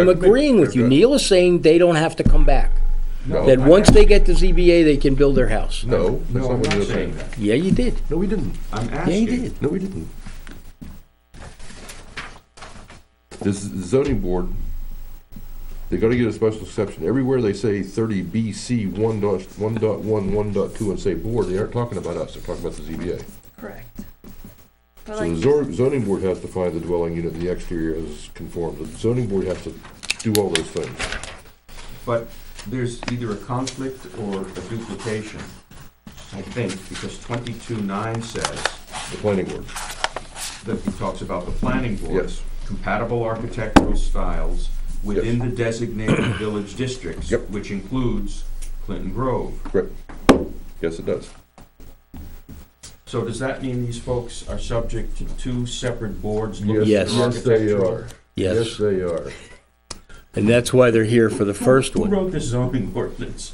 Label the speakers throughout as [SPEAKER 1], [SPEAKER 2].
[SPEAKER 1] I'm agreeing with you. Neil is saying they don't have to come back.
[SPEAKER 2] No,
[SPEAKER 1] That once they get to ZBA, they can build their house.
[SPEAKER 2] No, that's
[SPEAKER 3] No,
[SPEAKER 2] not
[SPEAKER 3] I'm
[SPEAKER 2] what
[SPEAKER 3] not
[SPEAKER 2] you're
[SPEAKER 3] saying
[SPEAKER 2] saying.
[SPEAKER 3] that.
[SPEAKER 1] Yeah, you did.
[SPEAKER 2] No, we didn't.
[SPEAKER 3] I'm
[SPEAKER 1] Yeah, you
[SPEAKER 3] asking,
[SPEAKER 1] did.
[SPEAKER 2] No, we didn't. This zoning board, they gotta get a special exception. Everywhere they say thirty B C one dot, one dot one, one dot two, and say board, they aren't talking about us, they're talking about the ZBA.
[SPEAKER 4] Correct.
[SPEAKER 2] So
[SPEAKER 4] But
[SPEAKER 2] the
[SPEAKER 4] like,
[SPEAKER 2] zor- zoning board has to find the dwelling unit, the exterior is conformed. The zoning board has to do all those things.
[SPEAKER 3] but there's either a conflict or a duplication, I think, because twenty-two nine says
[SPEAKER 2] The planning board,
[SPEAKER 3] that he talks about the planning board.
[SPEAKER 2] Yes.
[SPEAKER 3] Compatible architectural styles within the designated village districts.
[SPEAKER 2] Yep.
[SPEAKER 3] Which includes Clinton Grove.
[SPEAKER 2] correct. Yes, it does.
[SPEAKER 3] So does that mean these folks are subject to two separate boards?
[SPEAKER 2] Yes,
[SPEAKER 1] Yes.
[SPEAKER 3] looking at
[SPEAKER 2] Yes, they
[SPEAKER 3] architectural-
[SPEAKER 2] are. Yes,
[SPEAKER 1] Yes.
[SPEAKER 2] they are.
[SPEAKER 1] And that's why they're here for the first
[SPEAKER 3] Who
[SPEAKER 1] one.
[SPEAKER 3] wrote the zoning ordinance?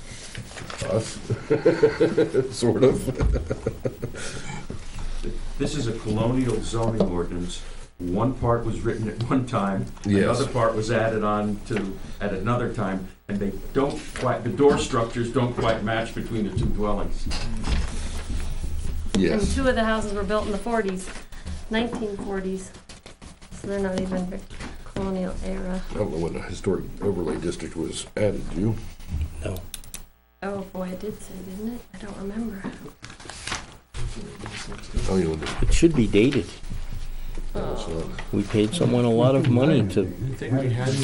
[SPEAKER 2] Us, sort of.
[SPEAKER 3] This is a colonial zoning ordinance. One part was written at one time,
[SPEAKER 2] Yes.
[SPEAKER 3] another part was added on to at another time, and they don't quite, the door structures don't quite match between the two dwellings.
[SPEAKER 4] and
[SPEAKER 2] Yes.
[SPEAKER 4] two of the houses were built in the forties, nineteen forties, so they're not even Vic- colonial era.
[SPEAKER 2] I don't know when the historic overlay district was added, do you?
[SPEAKER 1] No.
[SPEAKER 4] Oh, boy, it did say, didn't it? I don't remember.
[SPEAKER 2] Oh, you know,
[SPEAKER 1] It should be dated.
[SPEAKER 2] it's not.
[SPEAKER 1] We paid someone a lot of money to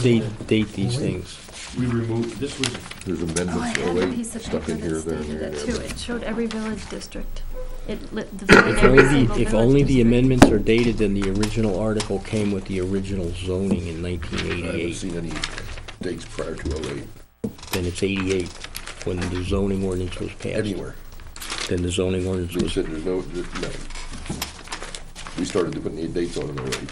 [SPEAKER 1] date, date these things.
[SPEAKER 3] We removed, this was,
[SPEAKER 2] There's
[SPEAKER 4] Oh, I
[SPEAKER 2] amendments,
[SPEAKER 4] had a
[SPEAKER 2] 08,
[SPEAKER 4] piece of
[SPEAKER 2] stuck
[SPEAKER 4] paper
[SPEAKER 2] in here,
[SPEAKER 4] that
[SPEAKER 2] there,
[SPEAKER 4] stated
[SPEAKER 2] there,
[SPEAKER 4] it too.
[SPEAKER 2] there.
[SPEAKER 4] It showed every village district. It lit, defined
[SPEAKER 1] If only,
[SPEAKER 4] every single
[SPEAKER 1] the- if
[SPEAKER 4] village
[SPEAKER 1] only the
[SPEAKER 4] district.
[SPEAKER 1] amendments are dated, then the original article came with the original zoning in
[SPEAKER 2] I haven't
[SPEAKER 1] 1988.
[SPEAKER 2] seen any dates prior to 08
[SPEAKER 1] Then it's 88 when the zoning ordinance was passed.
[SPEAKER 2] anywhere.
[SPEAKER 1] Then the zoning ordinance
[SPEAKER 2] So we
[SPEAKER 1] was,
[SPEAKER 2] said there's no, there's no. We started to put any dates on in 08.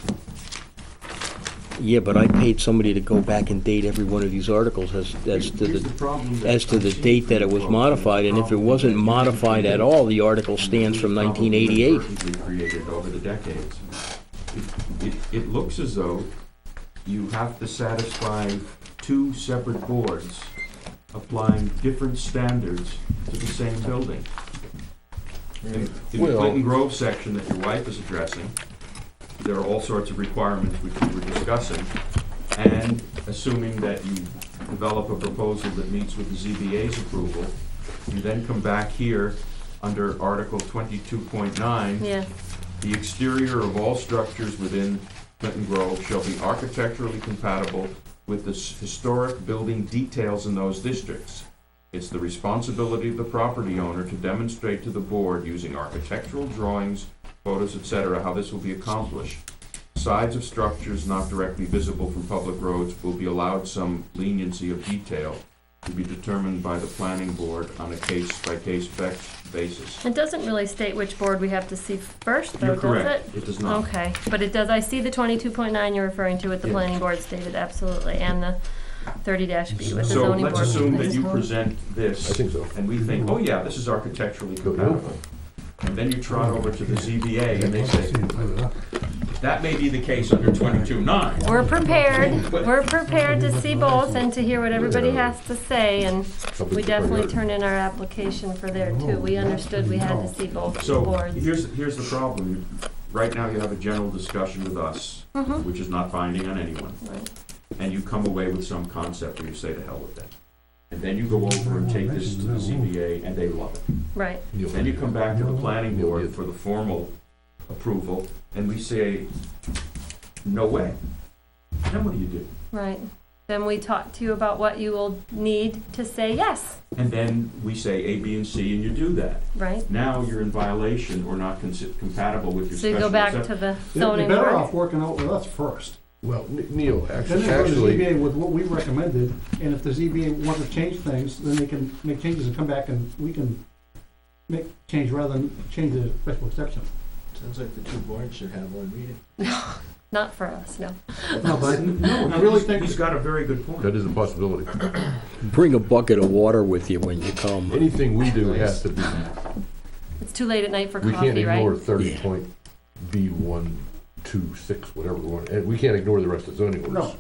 [SPEAKER 1] yeah, but I paid somebody to go back and date every one of these articles as, as to
[SPEAKER 3] here's the
[SPEAKER 1] the,
[SPEAKER 3] problem. that-
[SPEAKER 1] as to the date that it was modified, and if it wasn't modified at all, the article stands from
[SPEAKER 3] Probably
[SPEAKER 1] 1988.
[SPEAKER 3] inadvertently created over the decades. It, it- it looks as though you have to satisfy two separate boards applying different standards to the same building. In in the
[SPEAKER 2] Well-
[SPEAKER 3] Clinton Grove section that your wife is addressing, there are all sorts of requirements which we were discussing, and assuming that you develop a proposal that meets with the ZBA's approval, you then come back here under Article twenty-two point nine,
[SPEAKER 4] Yeah,
[SPEAKER 3] the exterior of all structures within Clinton Grove shall be architecturally compatible with the s- historic building details in those districts. It's the responsibility of the property owner to demonstrate to the board using architectural drawings, photos, etc., how this will be accomplished. Sides of structures not directly visible from public roads will be allowed some leniency of detail to be determined by the planning board on a case-by-case bec- basis.
[SPEAKER 4] it doesn't really state which board we have to see first, though,
[SPEAKER 3] You're
[SPEAKER 4] does it?
[SPEAKER 3] correct, it does not.
[SPEAKER 4] Okay, but it does, I see the twenty-two point nine you're referring to with the
[SPEAKER 3] Yeah.
[SPEAKER 4] planning board stated, absolutely, and the thirty dash B with the
[SPEAKER 3] So
[SPEAKER 4] zoning board.
[SPEAKER 3] let's assume that you
[SPEAKER 4] That's-
[SPEAKER 3] present
[SPEAKER 2] I
[SPEAKER 3] this,
[SPEAKER 2] think so.
[SPEAKER 3] and we think, oh yeah, this is architecturally compatible. And then you trot over to the ZBA and they say, that may be the case under twenty-two nine.
[SPEAKER 4] We're prepared, we're prepared to see both and to hear what everybody has to say, and we definitely turn in our application for there too. We understood we had to see both
[SPEAKER 3] So
[SPEAKER 4] boards.
[SPEAKER 3] here's, here's the problem. Right now you have a general discussion with us,
[SPEAKER 4] Mm-hmm.
[SPEAKER 3] which is not binding on anyone.
[SPEAKER 4] Right.
[SPEAKER 3] and you come away with some concept where you say to hell with that. And then you go over and take this to the ZBA and they love it.
[SPEAKER 4] Right,
[SPEAKER 3] Then you come back to the planning board for the formal approval and we say, no way. Then what do you do?
[SPEAKER 4] right. Then we talk to you about what you will need to say yes,
[SPEAKER 3] And then we say A, B, and C and you do that.
[SPEAKER 4] right?
[SPEAKER 3] Now you're in violation or not consi- compatible with your
[SPEAKER 4] So
[SPEAKER 3] special
[SPEAKER 4] you go back
[SPEAKER 3] exception.
[SPEAKER 4] to the
[SPEAKER 5] They're
[SPEAKER 4] zoning
[SPEAKER 5] better off
[SPEAKER 4] board.
[SPEAKER 5] working out with us first.
[SPEAKER 2] Well, N- Neil,
[SPEAKER 5] Then
[SPEAKER 2] actually,
[SPEAKER 5] they go to the
[SPEAKER 2] actually,
[SPEAKER 5] ZBA with what we recommended, and if the ZBA wants to change things, then they can make changes and come back and we can make change rather than change the special exception.
[SPEAKER 6] Sounds like the two boards should have one meeting.
[SPEAKER 4] Not for us, no.
[SPEAKER 5] No, but
[SPEAKER 3] No,
[SPEAKER 5] I really
[SPEAKER 3] he's-
[SPEAKER 5] think-
[SPEAKER 3] He's got a very good point.
[SPEAKER 2] that is a possibility.
[SPEAKER 1] Bring a bucket of water with you when you come.
[SPEAKER 2] Anything we do has to be,
[SPEAKER 4] It's too late at night for
[SPEAKER 2] we can't
[SPEAKER 4] coffee,
[SPEAKER 2] ignore
[SPEAKER 4] right?
[SPEAKER 2] thirty point B one, two, six, whatever the one, and we can't ignore the rest of the zoning orders.
[SPEAKER 5] No.